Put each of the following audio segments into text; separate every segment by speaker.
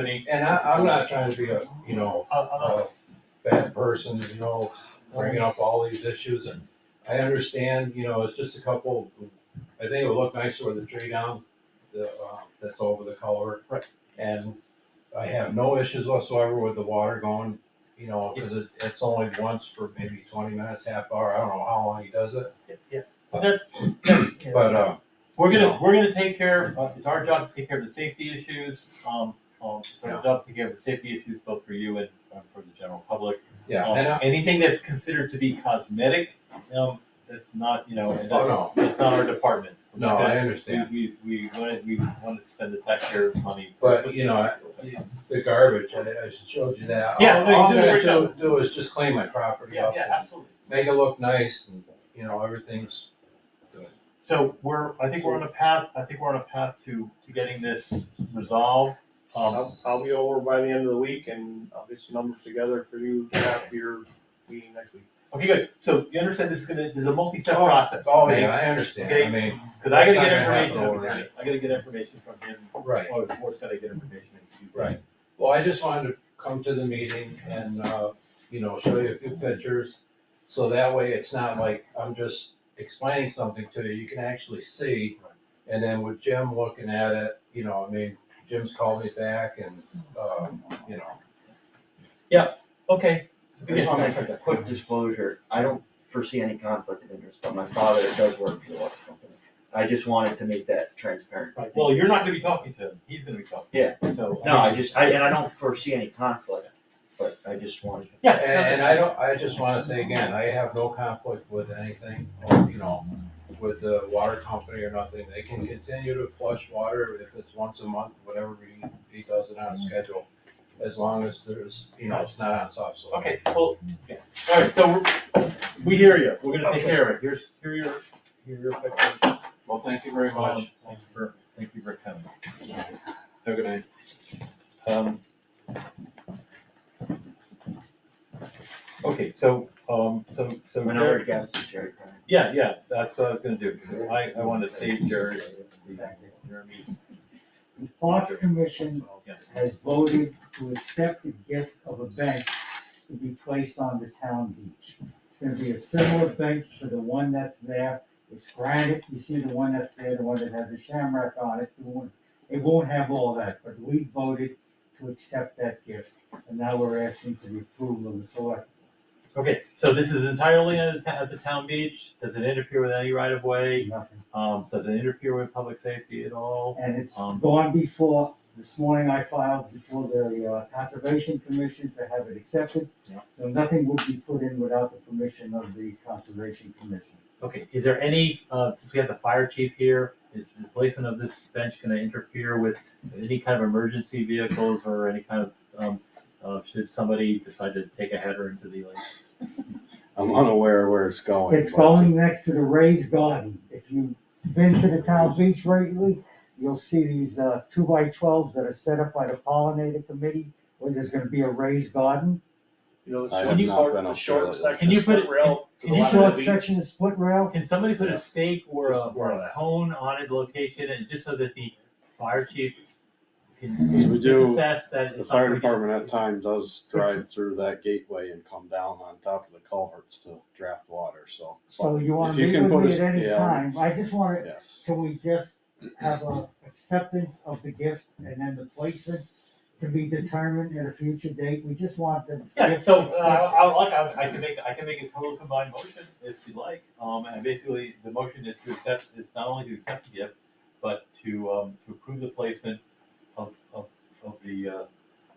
Speaker 1: company, and I, I'm not trying to be a, you know, a bad person, you know, bringing up all these issues, and I understand, you know, it's just a couple, I think it would look nicer with the tree down, the, uh, that's over the culvert.
Speaker 2: Right.
Speaker 1: And I have no issues whatsoever with the water going, you know, cause it, it's only once for maybe twenty minutes, half hour, I don't know how long he does it,
Speaker 2: Yeah, that, that-
Speaker 1: but, uh,
Speaker 2: We're gonna, we're gonna take care, uh, it's our job to take care of the safety issues, um, um, it's our job to take care of the safety issues both for you and uh, for the general public.
Speaker 1: yeah,
Speaker 2: Um,
Speaker 1: and uh, I,
Speaker 2: Anything that's considered to be cosmetic, um, that's not, you know, and
Speaker 1: Oh,
Speaker 2: that's, that's not our department.
Speaker 1: no, I understand.
Speaker 2: We, we, we wanna, we wanna spend the taxpayer's money.
Speaker 1: But, you know, I- the garbage, I, I showed you that. All-
Speaker 2: Yeah, no, you
Speaker 1: All I'm
Speaker 2: did a
Speaker 1: gonna
Speaker 2: great
Speaker 1: do, do is just clean my property
Speaker 2: Yeah,
Speaker 1: up,
Speaker 2: yeah,
Speaker 1: and
Speaker 2: absolutely.
Speaker 1: make it look nice, and, you know, everything's,
Speaker 2: So we're, I think we're on a path, I think we're on a path to, to getting this resolved, um,
Speaker 3: I'll, I'll be over by the end of the week and I'll get some numbers together for you to have for your meeting next week.
Speaker 2: okay, good, so you understand this is gonna, there's a multi-step
Speaker 1: Oh,
Speaker 2: process.
Speaker 1: oh,
Speaker 2: okay?
Speaker 1: yeah, I understand, I
Speaker 2: Okay.
Speaker 1: mean,
Speaker 2: Cause I gotta
Speaker 1: That's not
Speaker 2: get
Speaker 1: gonna happen
Speaker 2: information, from him.
Speaker 1: overnight.
Speaker 2: I gotta get information from him,
Speaker 1: right,
Speaker 2: or the board's gotta get information. and you-
Speaker 1: Right. well, I just wanted to come to the meeting and, uh, you know, show you a few pictures. So that way, it's not like I'm just explaining something to you, you can actually see, and then with Jim looking at it, you know, I mean, Jim's called me back and, um, you know.
Speaker 2: Okay.
Speaker 4: I just wanna make a quick disclosure, I don't foresee any conflict of interest, but my father does work for the water company. I just wanted to make that transparent.
Speaker 2: Right, Well, you're not gonna be talking to him, he's gonna be talking.
Speaker 4: Yeah.
Speaker 2: So. uh,
Speaker 4: No, I just, I, and I don't foresee any conflict, but I just wanted.
Speaker 2: Yeah.
Speaker 1: And, and I don't, I just wanna say again, I have no conflict with anything, or, you know, with the water company or nothing. They can continue to flush water if it's once a month, whatever he, he does it on schedule, as long as there's, you know, it's not on soft soil.
Speaker 2: Okay, well, yeah, alright, so we're- we hear you, we're gonna take
Speaker 1: Okay.
Speaker 2: care of it, here's, here are your, here are your pictures.
Speaker 1: Well, thank you very much.
Speaker 2: Thanks for, thank you for coming.
Speaker 1: Have a good night.
Speaker 2: Um, Okay, so, um, so, so.
Speaker 4: When I
Speaker 2: Jared-
Speaker 4: were guests, Jerry. Brown.
Speaker 2: Yeah, yeah, that's what I was gonna do, I, I wanted to save Jerry, Jeremy.
Speaker 5: The Parks Commission
Speaker 2: Yeah.
Speaker 5: has voted to accept the gift of a bench to be placed on the town beach. It's gonna be a similar bench to the one that's there, it's granite, you see the one that's there, the one that has a shamrock on it, it won't, it won't have all that, but we voted to accept that gift, and now we're asking for the approval of the select.
Speaker 2: Okay, so this is entirely at, the- at the town beach, does it interfere with any right of way?
Speaker 5: Nothing.
Speaker 2: Um, does it interfere with public safety at all?
Speaker 5: And it's
Speaker 2: Um,
Speaker 5: gone before, this morning I filed before the uh, Conservation Commission to have it accepted.
Speaker 2: Yeah.
Speaker 5: So nothing would be put in without the permission of the Conservation Commission.
Speaker 2: Okay, is there any, uh, since we have the fire chief here, is the placement of this bench gonna interfere with any kind of emergency vehicles or any kind of, um, uh, should somebody decide to take a header into the lake?
Speaker 6: I'm unaware where it's going.
Speaker 5: It's
Speaker 6: but-
Speaker 5: going next to the raised garden. If you've been to the town beach lately, you'll see these uh, two by twelves that are set up by the pollinator committee, where there's gonna be a raised garden.
Speaker 3: You know,
Speaker 6: I
Speaker 3: the
Speaker 6: have
Speaker 3: short,
Speaker 6: not been
Speaker 3: the
Speaker 6: up
Speaker 3: short
Speaker 6: there.
Speaker 3: section.
Speaker 2: Can you put it-
Speaker 3: rail to
Speaker 2: can
Speaker 3: the
Speaker 2: you
Speaker 3: left of
Speaker 5: Short
Speaker 3: the beach.
Speaker 5: section of split rail,
Speaker 2: Can somebody put
Speaker 6: Yeah.
Speaker 2: a stake or a,
Speaker 3: Just
Speaker 2: or a
Speaker 3: that.
Speaker 2: cone on it location and just so that the fire chief can
Speaker 6: We
Speaker 2: can
Speaker 6: do-
Speaker 2: assess that
Speaker 6: The
Speaker 2: it's
Speaker 6: fire
Speaker 2: not gonna
Speaker 6: department at time does drive through that gateway and come down on top of the culverts to draft water, so.
Speaker 5: so you wanna
Speaker 6: If you
Speaker 5: meet
Speaker 6: can
Speaker 5: with
Speaker 6: put
Speaker 5: me
Speaker 6: a-
Speaker 5: at any
Speaker 6: yeah.
Speaker 5: time. I just wanna
Speaker 6: Yes,
Speaker 5: Can we just have a acceptance of the gift and then the placement can be determined at a future date? We just want the.
Speaker 2: Yeah,
Speaker 5: gift
Speaker 2: so, uh,
Speaker 5: accepted.
Speaker 2: I, like, I, I can make, I can make a total combined motion if you like, um, and basically, the motion is to accept, is not only to accept the gift, but to, um, to approve the placement of, of, of the, uh,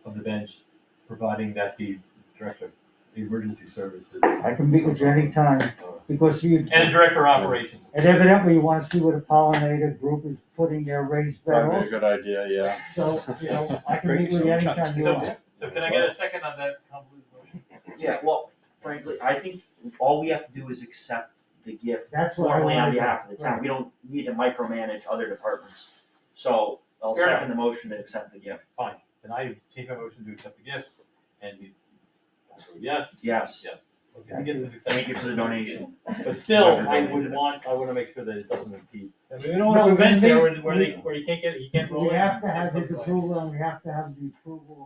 Speaker 2: of the bench, providing that the director of emergency services, uh,
Speaker 5: I can meet with you anytime because you,
Speaker 2: and
Speaker 5: and
Speaker 2: director of operations.
Speaker 5: evidently you wanna see where the pollinator group is putting their raised
Speaker 6: probably a
Speaker 5: barrels.
Speaker 6: good idea, yeah.
Speaker 5: So, you know, I can
Speaker 6: Bring
Speaker 5: meet with
Speaker 6: some
Speaker 5: you anytime you
Speaker 2: So-
Speaker 5: want.
Speaker 2: So can I get a second on that convoluted motion?
Speaker 4: Yeah, well, frankly, I think all we have to do is accept the gift
Speaker 5: That's what I
Speaker 4: formally on
Speaker 5: want.
Speaker 4: behalf of the town, we don't need to micromanage other departments. So I'll
Speaker 2: Fair enough.
Speaker 4: second the motion to accept the gift,
Speaker 2: Fine, can I take a motion to accept the gift, and you, I vote yes?
Speaker 4: yes,
Speaker 2: Yes, okay, I get this accepted.
Speaker 4: thank you for the donation.
Speaker 2: But still, I would want, I wanna make sure that it doesn't impede I mean, we don't want to
Speaker 5: But then
Speaker 2: invent there
Speaker 5: they-
Speaker 2: where, where they, where you can't get, you can't roll.
Speaker 5: We
Speaker 2: in
Speaker 5: have to have his
Speaker 2: someplace.
Speaker 5: approval and we have to have the approval